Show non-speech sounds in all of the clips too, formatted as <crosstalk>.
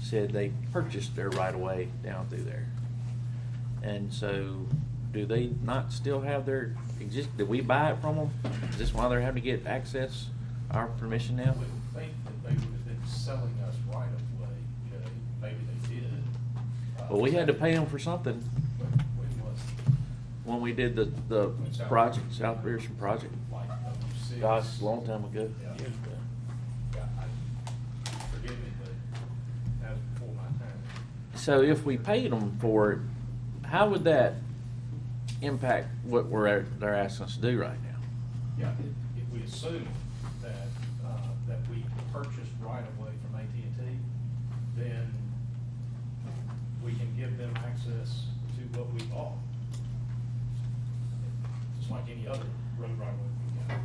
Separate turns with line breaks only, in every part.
said they purchased their right of way down through there. And so, do they not still have their exist, did we buy it from them? Is this why they're having to get access, our permission
I
now?
would think that they would have been selling us right of way, you know, maybe they did. Uh,
Well, we had to pay them for something
When when was
when we did the, the
it?
project, South Pearson project.
Like, oh, six.
Gosh, a long time ago.
Yeah. Yeah, I- Forgive me, but that was before my time.
So if we paid them for it, how would that impact what we're, they're asking us to do right now?
Yeah, if, if we assume that, uh, that we purchased right of way from AT&T, then we can give them access to what we bought. Just like any other road right of way we got.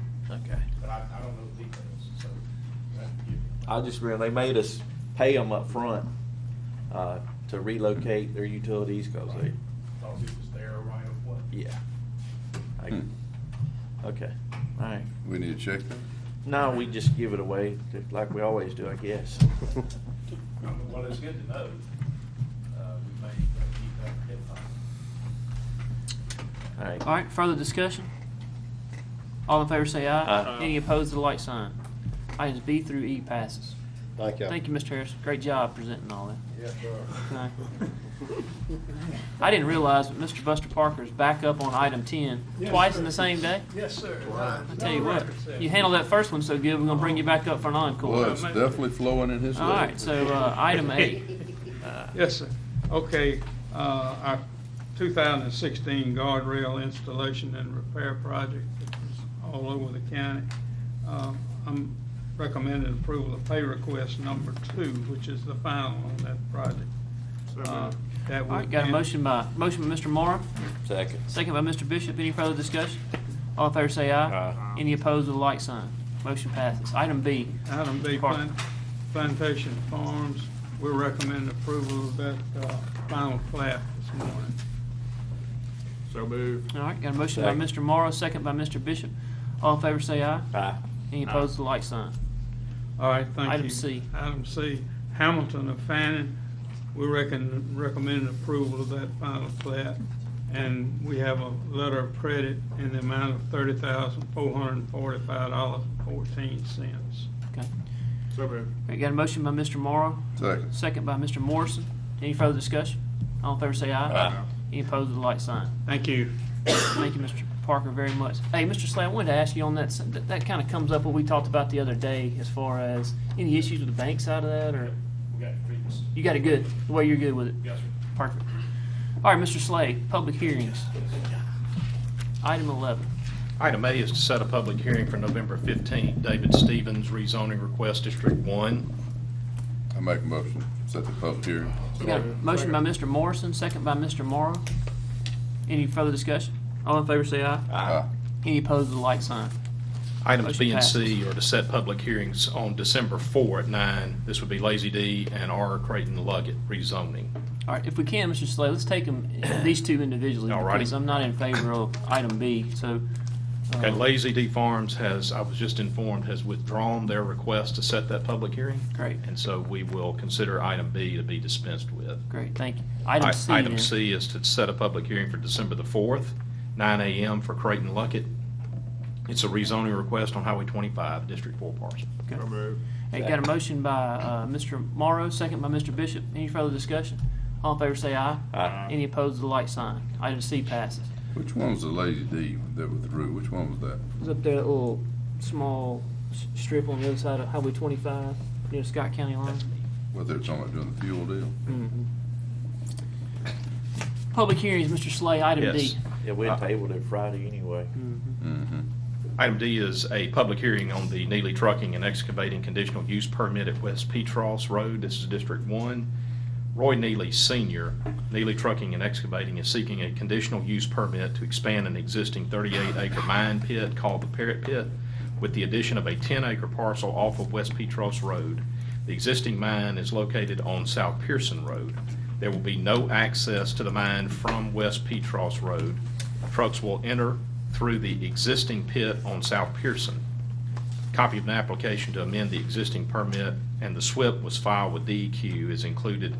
Okay.
But I, I don't know the details, so. I have to give you-
I just remember they made us pay them up front uh, to relocate their utilities because they,
Thought it was their right of way.
yeah. I-
Hmm.
Okay, all right.
We need to
<laughs>
check that?
No, we just give it away just like we always do, I guess.
Well, it's good to know, uh, we may uh, keep that in mind.
All right.
All right, further discussion? All in favor say aye.
Aye.
Any opposed, the like sign. Items B through E passes.
Thank you.
Thank you, Mr. Harris. Great job presenting all that.
Yes,
Okay. I didn't realize that Mr. Buster Parker is back up on item ten twice in the same day.
Yes, sir.
I tell you what, you handled that first one so good, we're gonna bring you back up for an encore.
Well, it's definitely flowing in his
All
lap.
right, so, uh, item A.
Yes, sir. Okay, uh, our 2016 guardrail installation and repair project that was all over the county. Uh, I'm recommending approval of pay request number two, which is the final on that project. Uh, That
All right,
would
got a
end-
motion by, motion by Mr. Morrow,
Second.
second by Mr. Bishop. Any further discussion? All in favor say aye. Any opposed with a like sign. Motion passes. Item B.
Item B,
Mr. Parker.
plant- Plantation Farms, we recommend approval of that uh, final plat this morning.
So move.
All right, got a motion by Mr. Morrow, second by Mr. Bishop. All in favor say aye.
Aye.
Any opposed, the like sign.
All right, thank you.
Item C.
Item C, Hamilton of Fannin, we reckon, recommend approval of that final plat. And we have a letter of credit in the amount of thirty thousand, four hundred and forty-five dollars and fourteen cents.
Okay.
So move.
All right, got a motion by Mr. Morrow,
Second.
second by Mr. Morrison. Any further discussion? All in favor say aye.
Aye.
Any opposed, the like sign.
Thank you.
Thank you, Mr. Parker, very much. Hey, Mr. Slay, I wanted to ask you on that, s- that, that kind of comes up what we talked about the other day as far as any issues with the bank side of that, or
We got previous,
you got it good, the way you're good with it?
yes, sir.
Perfect. All right, Mr. Slay, public hearings. Item eleven.
Item A is to set a public hearing for November 15th, David Stevens rezoning request District 1.
I make a motion, set the public hearing.
We got a motion by Mr. Morrison, second by Mr. Morrow. Any further discussion? All in favor say aye.
Aye.
Any opposed, the like sign.
Items B and
Motion
C are to set public hearings on December 4 at 9. This would be Lazy D and R Creighton Luggett rezoning.
All right, if we can, Mr. Slay, let's take them, <coughs> these two individually.
All righty.
Because I'm not in favor of item B, so. uh,
Okay, Lazy D Farms has, I was just informed, has withdrawn their request to set that public hearing.
Great.
And so we will consider item B to be dispensed with.
Great, thank you. Item
I-
C.
Item
then.
C is to set a public hearing for December the 4th, 9 a.m. for Creighton Luckett. It's a rezoning request on Highway 25, District 4 parcel.
Okay.
So move.
Hey, got a motion by, uh, Mr. Morrow, second by Mr. Bishop. Any further discussion? All in favor say aye.
Aye.
Any opposed, the like sign. Item C passes.
Which one was the Lady D that withdrew? Which one was that?
It was up there, that little small s- strip on the other side of Highway 25 near Scott County line. Mm-hmm.
Whether it's on doing the fuel deal?
Public hearings, Mr. Slay, item D.
Yes.
Yeah, we had tabled it Friday anyway.
Mm-hmm.
Item D is a public hearing on the Neely Trucking and Excavating Conditional Use Permit at West Petros Road. This is District 1. Roy Neely Sr., Neely Trucking and Excavating is seeking a conditional use permit to expand an existing 38-acre mine pit called the Parrot Pit with the addition of a 10-acre parcel off of West Petros Road. The existing mine is located on South Pearson Road. There will be no access to the mine from West Petros Road. Trucks will enter through the existing pit on South Pearson. Copy of an application to amend the existing permit and the SWIP was filed with DEQ E is included